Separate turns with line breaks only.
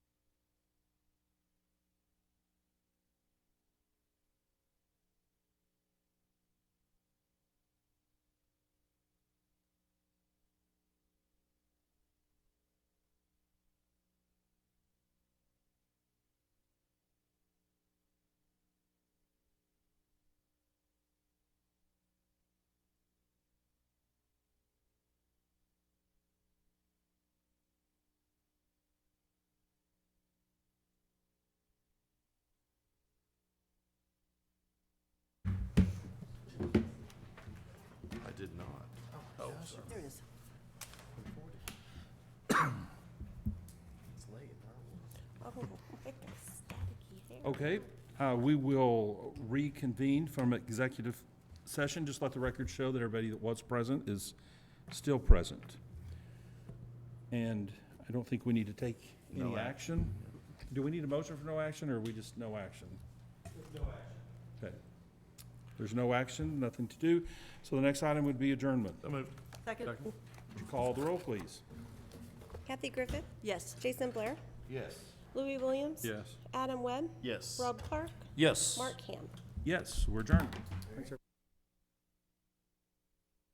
Okay, uh, we will reconvene from executive session. Just let the record show that everybody that was present is still present. And I don't think we need to take any
No act.
action. Do we need a motion for no action, or are we just no action? No action. Okay. There's no action, nothing to do. So the next item would be adjournment.
Second?
Would you Call the roll, please.
Kathy Griffith,
Yes.
Jason Blair,
Yes.
Louis Williams. Adam Webb,
Yes.
Rob Clark,
Yes.
Mark Ham.
Yes, we're adjourned.